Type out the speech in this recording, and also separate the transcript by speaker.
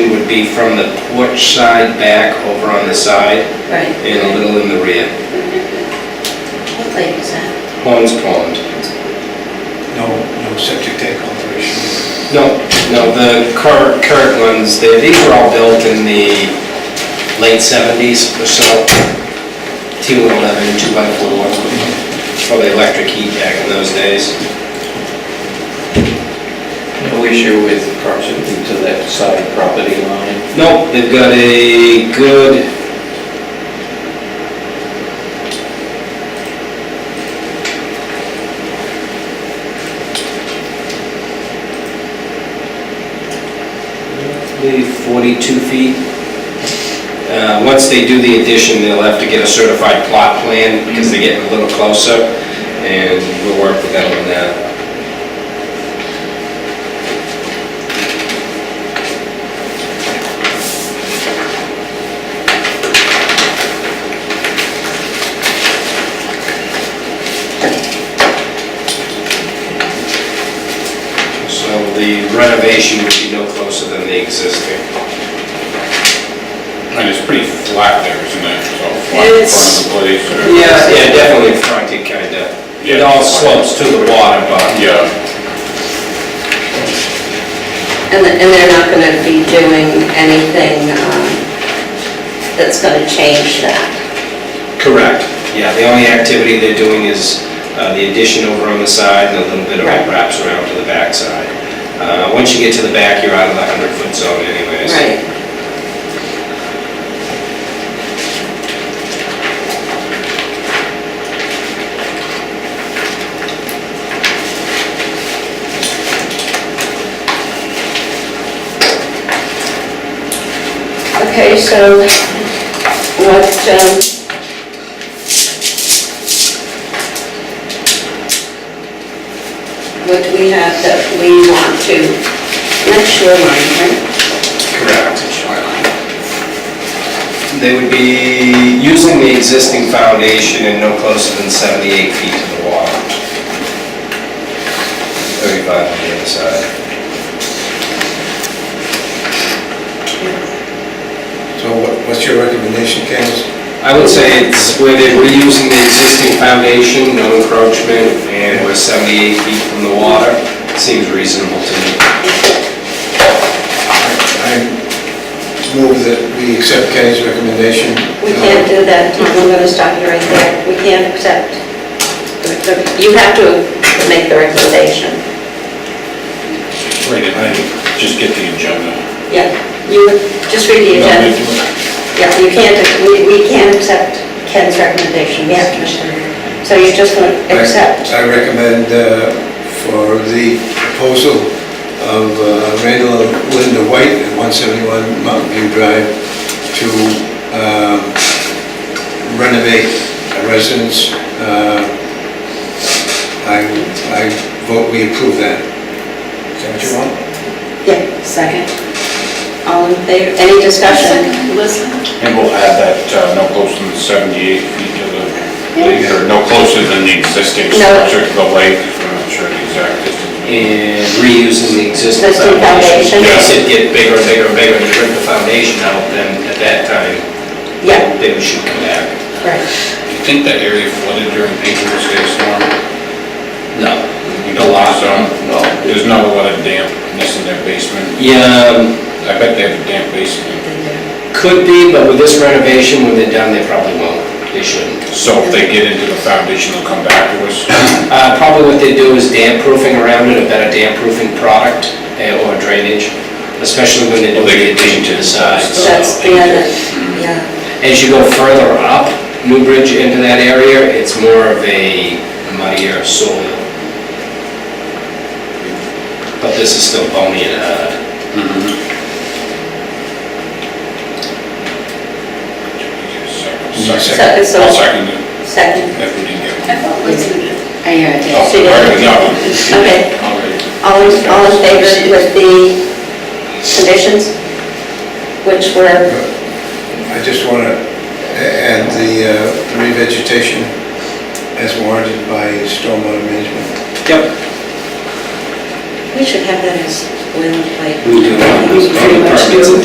Speaker 1: be from the porch side back over on the side
Speaker 2: Right.
Speaker 1: and a little in the rear.
Speaker 2: What lake is that?
Speaker 1: Horns Pond.
Speaker 3: No, no septic tank alteration.
Speaker 1: No, no, the current, current ones, they- these were all built in the late seventies or so. T one eleven, two by four, probably electric heat back in those days.
Speaker 4: No issue with proximity to that side property line.
Speaker 1: Nope, they've got a good... Maybe 42 feet. Uh, Once they do the addition, they'll have to get a certified plot plan because they're getting a little closer, and we'll work with them on that. So the renovation would be no closer than the existing.
Speaker 5: And it's pretty flat there, isn't it? It's all flat in front
Speaker 1: It's-
Speaker 5: of the place. or-
Speaker 1: Yeah, yeah, definitely fronted, kinda. It
Speaker 5: Yeah.
Speaker 1: all slopes to the water, but
Speaker 5: Yeah,
Speaker 2: And the- and they're not going to be doing anything um, that's going to change that?
Speaker 1: Correct. Yeah, the only activity they're doing is uh, the addition over on the side and a little bit of
Speaker 2: Right.
Speaker 1: what wraps around to the backside. Uh, Once you get to the back, you're out of the 100-foot zone anyways.
Speaker 2: Right. Okay, so what, um, what do we have that we want to, not shoreline, right?
Speaker 1: Correct.
Speaker 2: Shoreline.
Speaker 1: They would be using the existing foundation and no closer than 78 feet to the water. 35 on the other side.
Speaker 3: So what- what's your recommendation, Candace?
Speaker 1: I would say it's where they're reusing the existing foundation, no encroachment, and we're 78 feet from the water, seems reasonable to me.
Speaker 3: I move that we accept Kenny's recommendation.
Speaker 2: We can't do that, Tom, I'm gonna stop you right there. We can't accept. You have to make the recommendation.
Speaker 5: wait, did I just get the agenda?
Speaker 2: Yeah, you, just read the agenda. Yeah, you can't, we, we can't accept Ken's recommendation, we have to. So you're just gonna
Speaker 3: Um, I-
Speaker 2: accept,
Speaker 3: I recommend uh, for the proposal of uh, Randall and Linda White at 171 Mountain View Drive to um, renovate a residence. uh, I, I vote we approve that. Is that what you want?
Speaker 2: yeah, second. All in favor, any discussion?
Speaker 5: And we'll add that, uh, no closer than 78 feet to the lake, or no closer than the existing
Speaker 2: No.
Speaker 5: structure to the lake, I'm not sure the exact distance.
Speaker 1: and reusing the existing
Speaker 2: Existing foundation.
Speaker 1: foundation. Yes, it get bigger and bigger and bigger, and you rip the foundation out, then at that time,
Speaker 2: Yeah,
Speaker 1: they should come back.
Speaker 2: right.
Speaker 5: Do you think that area flooded during April's Day storm?
Speaker 1: No.
Speaker 5: You
Speaker 1: A
Speaker 5: don't
Speaker 1: lot.
Speaker 5: think
Speaker 1: No.
Speaker 5: so? There's not a lot of dampness in their basement.
Speaker 1: Yeah, um,
Speaker 5: I bet they have a damp basement.
Speaker 1: could be, but with this renovation, when they're done, they probably won't. They shouldn't.
Speaker 5: So if they get into the foundation, they'll come back to us.
Speaker 1: Uh, Probably what they do is damp proofing around it, a better damp proofing product eh, or drainage, especially when they do
Speaker 5: Well, they
Speaker 1: the
Speaker 5: get
Speaker 1: addition to the sides.
Speaker 2: That's the other, yeah,
Speaker 1: As you go further up Newbridge into that area, it's more of a muddier soil. But this is still bony and uh, hard.
Speaker 5: Second.
Speaker 2: So- so-
Speaker 5: I'll second it,
Speaker 2: second.
Speaker 5: if we didn't get one.
Speaker 2: I hear it.
Speaker 5: Oh,
Speaker 2: See the
Speaker 5: already,
Speaker 2: other?
Speaker 5: no.
Speaker 2: Okay,
Speaker 5: Already.
Speaker 2: all in, all in favor with the conditions, which were,
Speaker 3: I just want to add the uh, the revegetation as warranted by stormwater management.
Speaker 1: Yep.
Speaker 2: we should have that as, well, like.
Speaker 1: We do.
Speaker 2: Pretty much
Speaker 1: Permits and